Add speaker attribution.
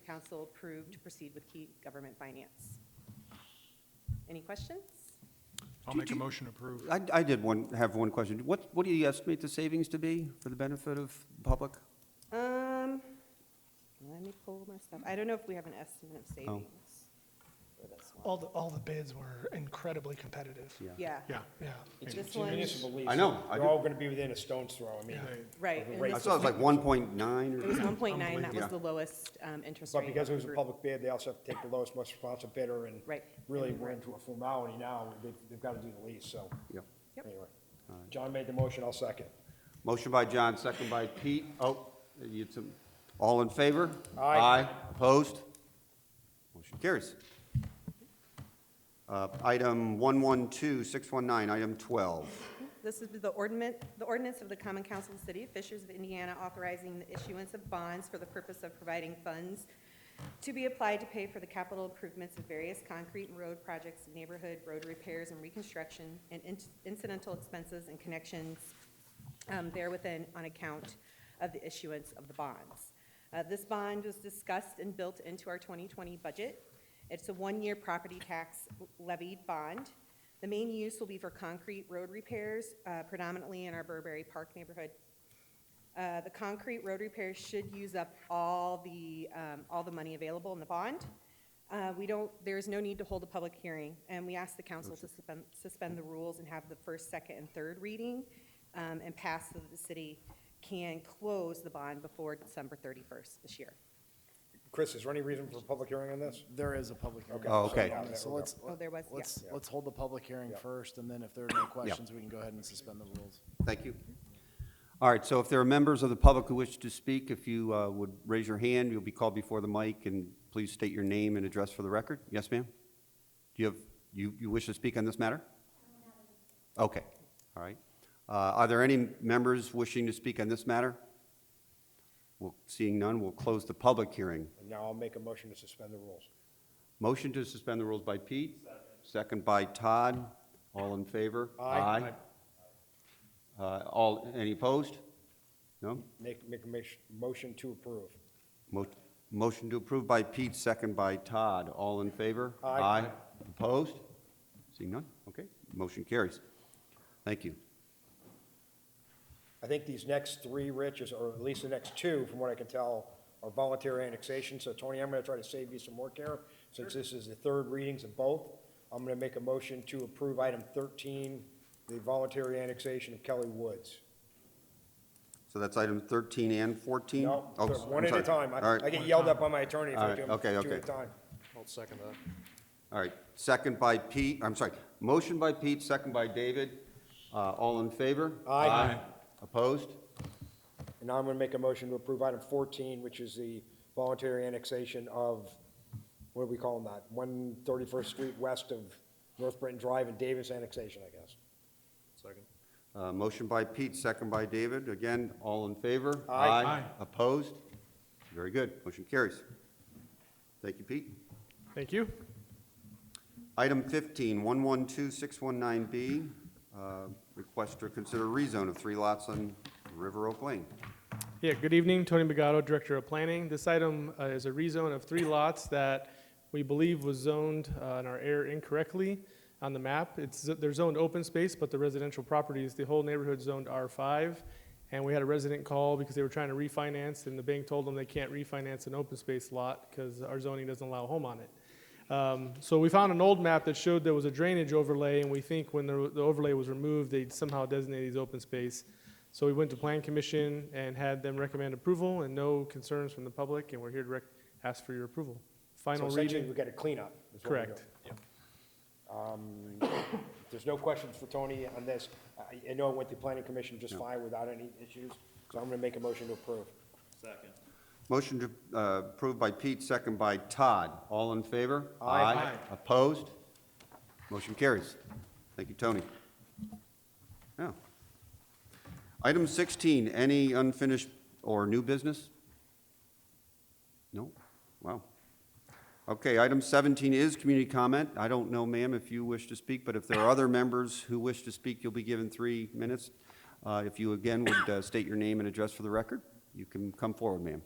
Speaker 1: council approved to proceed with key government finance. Any questions?
Speaker 2: I'll
Speaker 3: Do-
Speaker 2: make a
Speaker 3: do-
Speaker 2: motion to approve.
Speaker 3: I, I did one, have one question. What, what do you estimate the savings to be for the benefit of the public?
Speaker 1: Um, let me pull my stuff. I don't know if we have an estimate of savings for this one.
Speaker 4: All the, all the bids were incredibly competitive.
Speaker 1: Yeah.
Speaker 2: Yeah.
Speaker 4: Yeah.
Speaker 5: It's
Speaker 1: This
Speaker 5: it's
Speaker 1: one-
Speaker 5: municipal lease.
Speaker 3: I know, I
Speaker 5: They're
Speaker 3: do.
Speaker 5: all gonna be within a stone's throw, I mean.
Speaker 1: Right. and
Speaker 5: Right.
Speaker 3: I
Speaker 1: this
Speaker 3: saw it was like one point nine
Speaker 1: It was
Speaker 3: or,
Speaker 1: one point nine, that was
Speaker 3: Yeah.
Speaker 1: the lowest, um, interest rate.
Speaker 5: But because it was a
Speaker 1: group.
Speaker 5: public bid, they also have to take the lowest, most responsive bidder, and
Speaker 1: Right.
Speaker 5: really, we're into a formality now, they've, they've gotta do the lease, so.
Speaker 3: yeah.
Speaker 1: Yep.
Speaker 5: Anyway, John made the motion, I'll second.
Speaker 3: Motion by John, second by Pete. Oh, you had some, all in favor?
Speaker 5: Aye.
Speaker 3: Opposed? Motion carries. Uh, item one one two, six one nine, item twelve.
Speaker 1: This is the ordinance, the ordinance of the Common Council of the City of Fishers of Indiana authorizing the issuance of bonds for the purpose of providing funds to be applied to pay for the capital improvements of various concrete and road projects, neighborhood road repairs and reconstruction, and in- incidental expenses and connections um, therewithin on account of the issuance of the bonds. Uh, This bond was discussed and built into our 2020 budget. It's a one-year property tax levied bond. The main use will be for concrete road repairs, uh, predominantly in our Burberry Park neighborhood. Uh, The concrete road repairs should use up all the, um, all the money available in the bond. Uh, We don't, there is no need to hold a public hearing, and we ask the council to suspend, suspend the rules and have the first, second, and third reading um, and pass so that the city can close the bond before December 31st this year.
Speaker 5: Chris, is there any reason for a public hearing on this?
Speaker 6: There is a public hearing.
Speaker 5: Okay.
Speaker 3: Oh, okay.
Speaker 5: Yeah,
Speaker 6: So
Speaker 5: we're
Speaker 6: let's,
Speaker 1: Oh, there was, yeah.
Speaker 6: let's, let's hold the public hearing
Speaker 5: Yeah.
Speaker 6: first, and then if there are no questions, we can go ahead and suspend the rules.
Speaker 3: Thank you. All right, so if there are members of the public who wish to speak, if you uh, would raise your hand, you'll be called before the mic, and please state your name and address for the record. Yes, ma'am? Do you have, you, you wish to speak on this matter? Okay, all right. Uh, Are there any members wishing to speak on this matter? Well, seeing none, we'll close the public hearing.
Speaker 5: And now I'll make a motion to suspend the rules.
Speaker 3: Motion to suspend the rules by Pete, second by Todd. All in favor?
Speaker 5: Aye.
Speaker 3: Aye. Uh, All, any opposed? No?
Speaker 5: Make, make a mach- motion to approve.
Speaker 3: Mo- Motion to approve by Pete, second by Todd. All in favor?
Speaker 5: Aye.
Speaker 3: Opposed? Seeing none? Okay, motion carries. Thank you.
Speaker 5: I think these next three, Rich, is- or at least the next two, from what I can tell, are voluntary annexation. So Tony, I'm going to try to save you some work here, since this is the third readings of both. I'm going to make a motion to approve item 13, the voluntary annexation of Kelly Woods.
Speaker 3: So that's item 13 and 14?
Speaker 5: No,
Speaker 3: Oh,
Speaker 5: they're
Speaker 3: I'm
Speaker 5: one at
Speaker 3: sorry.
Speaker 5: a time.
Speaker 3: All
Speaker 5: I-
Speaker 3: right.
Speaker 5: I get yelled at by my attorney if
Speaker 3: All
Speaker 5: I
Speaker 3: right,
Speaker 5: do
Speaker 3: okay,
Speaker 5: them two
Speaker 3: okay.
Speaker 5: at a time.
Speaker 7: I'll second that.
Speaker 3: All right, second by Pete, I'm sorry, motion by Pete, second by David. Uh, All in favor?
Speaker 5: Aye. Aye.
Speaker 3: Opposed?
Speaker 5: And now I'm going to make a motion to approve item 14, which is the voluntary annexation of, what do we call them that? 131st Street west of North Britton Drive and Davis annexation, I guess.
Speaker 7: Second.
Speaker 3: Uh, Motion by Pete, second by David. Again, all in favor?
Speaker 5: Aye.
Speaker 2: Aye.
Speaker 3: Opposed? Very good, motion carries. Thank you, Pete.
Speaker 2: Thank you.
Speaker 3: Item 15, 112619B, uh, request to consider rezone of three lots on River Oak Lane.
Speaker 8: Yeah, good evening, Tony Bagato, Director of Planning. This item uh, is a rezone of three lots that we believe was zoned uh, in our area incorrectly on the map. It's, they're zoned open space, but the residential properties, the whole neighborhood zoned R5. And we had a resident call because they were trying to refinance, and the bank told them they can't refinance an open space lot because our zoning doesn't allow a home on it. Um, So we found an old map that showed there was a drainage overlay, and we think when the the overlay was removed, they somehow designated these open space. So we went to Plan Commission and had them recommend approval and no concerns from the public, and we're here to rec- ask for your approval.
Speaker 5: So
Speaker 8: Final
Speaker 5: essentially,
Speaker 8: reading,
Speaker 5: we've got a cleanup. is what we're
Speaker 8: correct.
Speaker 5: doing. If There's no questions for Tony on this. I- I know it went to planning commission just fine without any issues, so I'm going to make a motion to approve.
Speaker 3: Motion to, uh, approved by Pete, second by Todd. All in favor?
Speaker 5: Aye.
Speaker 3: Opposed? Motion carries. Thank you, Tony. Now, item 16, any unfinished or new business? No? Wow. Okay, item 17 is community comment. I don't know, ma'am, if you wish to speak, but if there are other members who wish to speak, you'll be given three minutes. Uh, If you again would uh, state your name and address for the record, you can come forward, ma'am.